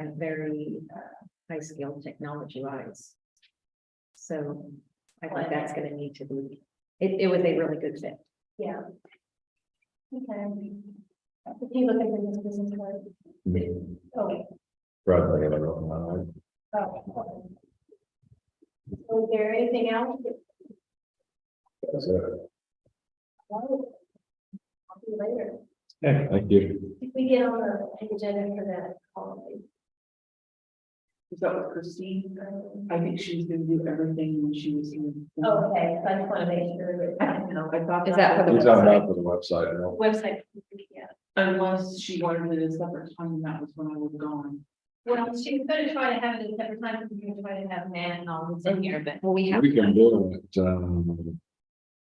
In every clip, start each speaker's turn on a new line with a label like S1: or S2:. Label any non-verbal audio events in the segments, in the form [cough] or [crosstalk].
S1: and very uh high skilled technology wise. So I think that's gonna need to be, it it was a really good fit.
S2: Yeah. Okay. If you look at this business card,
S3: Me,
S2: Oh, okay,
S3: Bradley, I don't know.
S2: oh, okay. Was there anything else? that-
S3: That's it.
S2: I'll do Later,
S3: Thank you.
S2: if we get on the agenda for that, holiday,
S4: Was that with Christine?
S2: um,
S4: I think she was gonna do everything when she was here.
S2: oh, okay, so I just want to make sure.
S4: I don't know, I thought.
S1: Is that for the
S3: He's on out for the website, you know.
S2: Website, yeah.
S4: Unless she wanted it a separate time, that was when I was gone.
S2: Well, she was gonna try to have it a separate time, because we were trying to have Matt and all this in here, but.
S1: Well, we have.
S3: We can do it, um.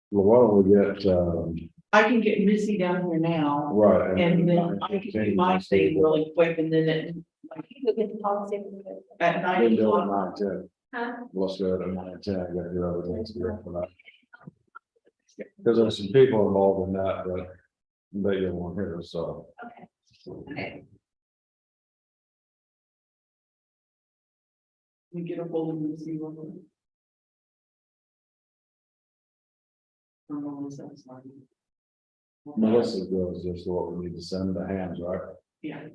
S3: Well, why don't we get, um,
S4: I can get Missy down here now
S3: right.
S4: and then I can do my thing really quick and then it, like,
S2: We'll get the policy. from the-
S4: at nine
S3: We'll do it at
S4: o'clock.
S3: nine ten,
S2: Huh?
S3: let's do it at nine ten, I gotta do other things to do for that. Cause there's some people involved in that, but they don't want here, so.
S2: Okay, okay.
S4: We get a hold of Missy. real quick. Or Melissa, I'm sorry.
S3: Melissa goes just what we need to send the hands, right?
S4: Yeah.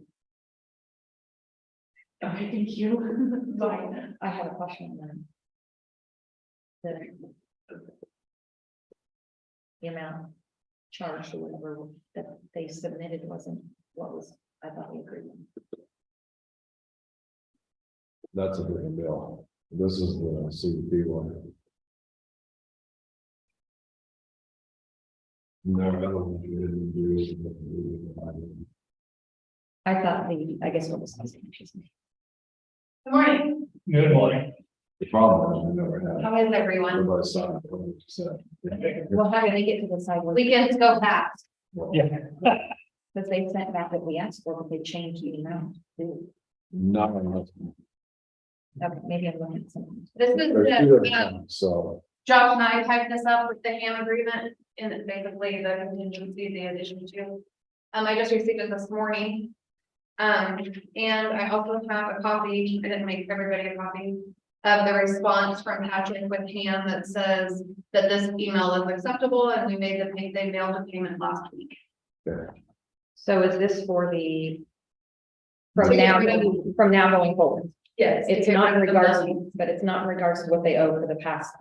S4: Okay, thank you. [laughs] Bye.
S1: I have a question then. The. The amount charged or whatever that they submitted wasn't what was, I thought we agreed. on.
S3: That's a big bill. This is the CDP one. No, I don't think we didn't do it, but we-
S1: I thought the, I guess what was. confusing me.
S2: Good morning,
S5: Good morning.
S3: The problem is we never had.
S2: how is everyone?
S3: Everybody signed up, what we said.
S1: Well, how did they get to the sidewalk?
S2: Weekends go fast.
S1: Because they sent back that we asked for, but they changed the amount. Okay,
S3: Not enough.
S1: uh, maybe I'm looking at something.
S2: This is
S3: There's two of
S2: the, uh,
S3: them, So,
S2: Josh and I typed this up with the ham agreement and it's basically the contingency, the addition to. Um, I just received it this morning. Um, and I also have a copy, I didn't make everybody a copy. Of the response from Patrick with ham that says that this email is acceptable and we made the pay, they mailed the payment last week.
S1: So is this for the? From
S2: To get
S1: now,
S2: rid
S1: from now going forward,
S2: Yes.
S1: it's not in regards, but it's not in regards to what they owe for the past.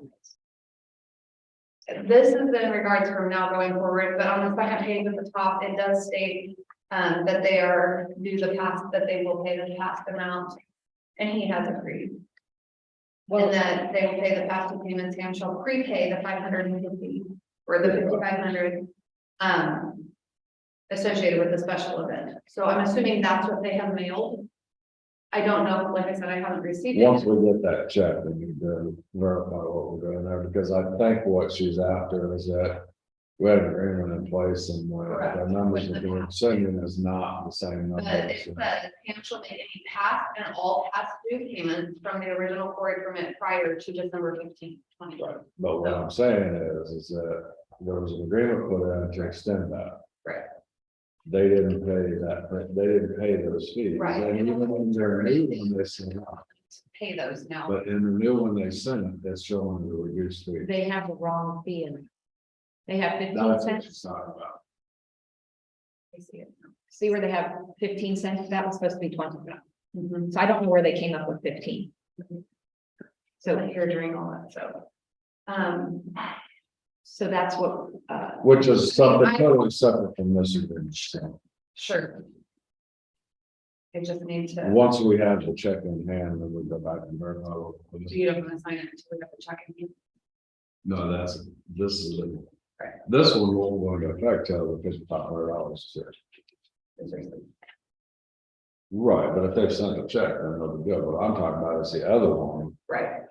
S2: This is in regards from now going forward, but on the second page at the top, it does state um, that they are due the past, that they will pay the past amount. And he has agreed,
S1: Well,
S2: and that they will pay the past due payments and shall prepay the five hundred and fifty or the fifty-five hundred um, associated with the special event. So I'm assuming that's what they have mailed. I don't know, like I said, I haven't received it.
S3: once we get that check, we need to verify what we're doing there, because I think what she's after is that. We have an agreement in place and uh, the
S2: Correct.
S3: numbers that we're sending is not the same number.
S2: But it says, and shall make any past and all past due payments from the original quarry permit prior to December fifteenth, twenty twenty.
S3: Right, but what I'm saying is, is that there was an agreement put in to extend that.
S2: Right.
S3: They didn't pay that, they didn't pay those fees.
S2: Right.
S3: And even when they're new, when they send out,
S2: Pay those now.
S3: but in the new one they send it, that's showing the reduced fee.
S1: they have the wrong fee in. it. They have fifteen
S3: That's what
S1: cents,
S3: she's talking about.
S2: I see it now.
S1: see where they have fifteen cents, that was supposed to be twenty.
S4: Mhm.
S1: So I don't know where they came up with fifteen.
S2: So
S1: So,
S2: you're doing all that, so. Um,
S1: so that's what, uh,
S3: Which is something
S2: I-
S3: totally separate from this agreement. So,
S2: sure. I just need to,
S3: Once we have the check in hand, then we go back and verify. what we're doing.
S2: do you don't want to sign it until we have the check in?
S3: No, that's, this is, a-
S2: Right.
S3: this one won't go into effect till the fifty-five hundred dollars. is here. Right, but if they sent a check, then they'll be good, what I'm talking about is the other one,
S2: Right.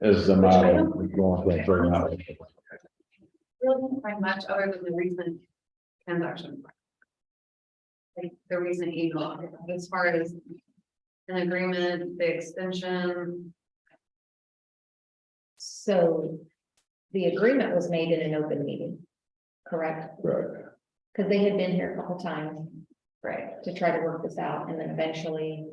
S3: is the matter of going to bring out.
S2: Really didn't find much other than the recent transaction. Like the recent email, as far as an agreement, the extension,
S1: so the agreement was made in an open meeting, correct?
S3: Right,
S1: Because they had been here a couple times
S2: right?
S1: to try to work this out, and then eventually